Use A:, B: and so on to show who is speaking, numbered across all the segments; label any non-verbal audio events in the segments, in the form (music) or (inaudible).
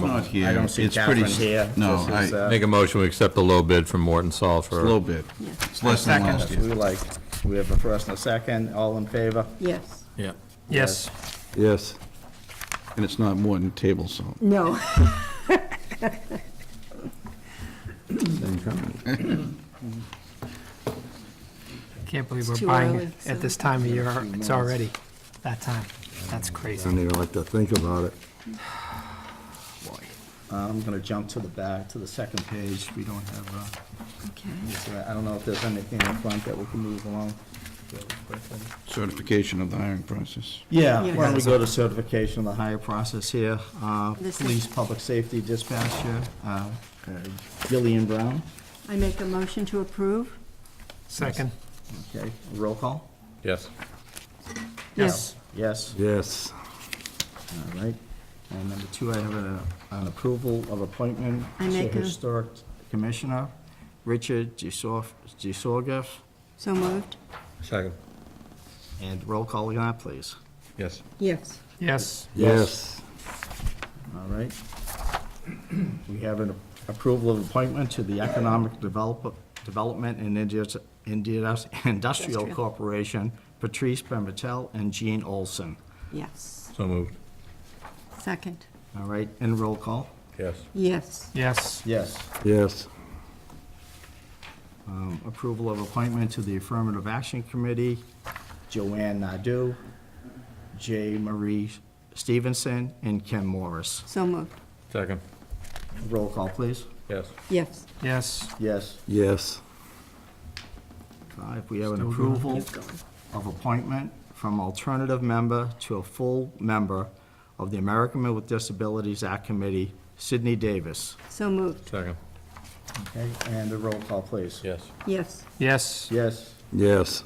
A: not here.
B: I don't see
A: It's pretty
B: Catherine
A: s-
B: here.
A: No,
B: This
A: I,
B: is,
A: a
B: uh,
C: Make a motion, we accept the low bid from Morton Saul for.
A: little bit. It's less than
B: Second,
A: last
B: if we
A: year.
B: like, we have a first and a second, all in favor?
D: Yes,
C: Yeah.
E: Yes.
A: Yes. And it's not more than table salt.
D: no,
E: Can't believe we're
D: too
E: buying
D: early,
E: it at
D: so-
E: this time of year. It's already that time. That's crazy.
F: Don't even like to think about it.
B: I'm gonna jump to the back, to the second page, we don't have, uh,
D: okay.
B: this, uh, I don't know if there's anything in front that we can move along. really quickly.
A: Certification of the hiring process.
B: Yeah,
D: Yeah.
B: why don't we go to certification of the higher process here, uh,
D: This is-
B: police, public safety dispatcher, uh, uh, Gillian Brown,
D: I make a motion to approve?
E: Second.
B: okay, roll call?
C: Yes.
B: Yes,
F: Yes.
B: all right. And number two, I have an, an approval of appointment
D: I
B: to
D: make a-
B: Historic Commissioner, Richard Gisorf- Gisorgis,
D: So moved?
C: Second.
B: and roll call again, please.
C: Yes.
D: Yes.
E: Yes.
F: Yes.
B: All right. We have an approval of appointment to the Economic Develop- Development and Indus- Indus- Industrial
D: Industrial.
B: Corporation, Patrice Pimentel and Jean Olson.
D: Yes.
C: So moved.
D: Second?
B: All right, and roll call?
C: Yes.
D: Yes.
E: Yes.
B: Yes.
F: Yes.
B: Um, Approval of appointment to the Affirmative Action Committee, Joanne Nadeau, J. Marie Stevenson, and Kim Morris.
D: So moved?
C: Second.
B: Roll call, please.
C: Yes.
D: Yes.
E: Yes.
B: Yes.
F: Yes.
B: Five, Uh, we have an
E: Still going.
B: approval of appointment from alternative member to a full member of the American with Disabilities Act Committee, Sydney Davis.
D: So moved?
C: Second.
B: Okay, and a roll call, please.
C: Yes.
D: Yes.
E: Yes.
B: Yes.
F: Yes.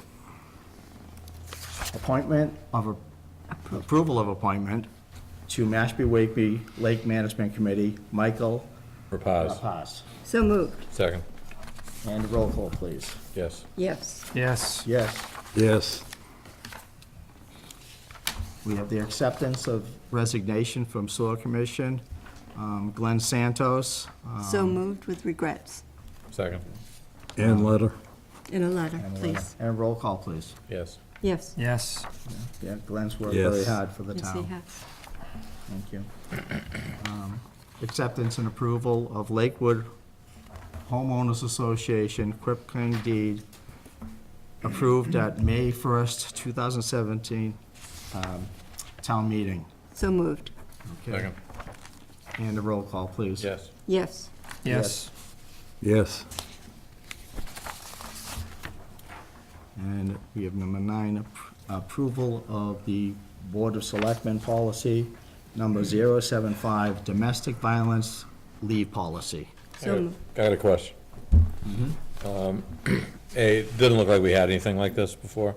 B: Appointment of, a- approval of appointment to Mashpee Wakeby Lake Management Committee, Michael
C: Repose.
B: Rapaz.
D: So moved?
C: Second.
B: And a roll call, please.
C: Yes.
D: Yes.
E: Yes.
B: Yes.
F: Yes.
B: We have the acceptance of resignation from Soil Commission, um, Glenn Santos. um,
D: So moved with regrets?
C: Second.
F: And letter.
D: In a letter,
B: and a letter.
D: please?
B: And a roll call, please.
C: Yes.
D: Yes.
E: Yes.
B: Yeah, Glenn's worked very
F: Yes.
B: hard for the
D: Yes, he
B: town.
D: has.
B: Thank you. (coughs) Um, Acceptance and approval of Lakewood Homeowners Association Quip Claim Deed approved at May 1st, 2017, um, town meeting.
D: So moved?
B: Okay. And a roll call, please.
C: Yes.
D: Yes.
E: Yes.
F: Yes.
B: And we have number nine, ap- approval of the Board of Selectmen policy, number 075, domestic violence leave policy.
D: So moved?
C: I got a question. Um, (clears throat) A, it didn't look like we had anything like this before.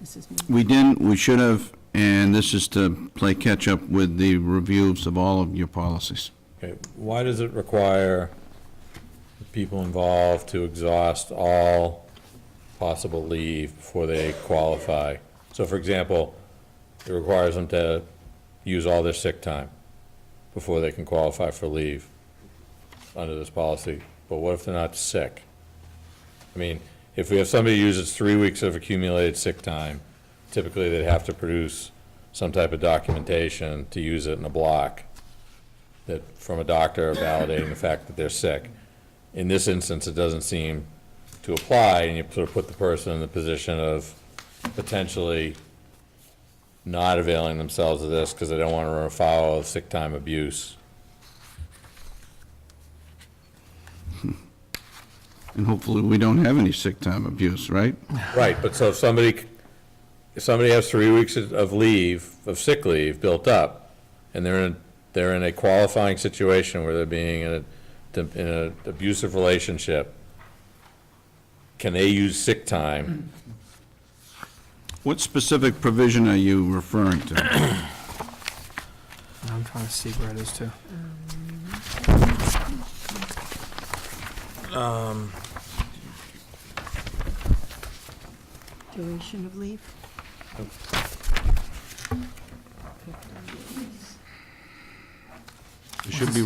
D: This is me.
A: We didn't, we should have, and this is to play catch-up with the reviews of all of your policies.
C: Okay, why does it require the people involved to exhaust all possible leave before they qualify? So for example, it requires them to use all their sick time before they can qualify for leave under this policy, but what if they're not sick? I mean, if we have somebody who uses three weeks of accumulated sick time, typically they'd have to produce some type of documentation to use it in a block that, from a doctor validating the fact that they're sick. In this instance, it doesn't seem to apply, and you sort of put the person in the position of potentially not availing themselves of this because they don't want to run afoul of sick time abuse.
A: And hopefully, we don't have any sick time abuse, right?
C: Right, but so if somebody, if somebody has three weeks of leave, of sick leave built up, and they're in, they're in a qualifying situation where they're being in a, in an abusive relationship, can they use sick time?
A: What specific provision are you referring to?
E: I'm trying to see where it is too.
D: Duration of leave?
A: It should be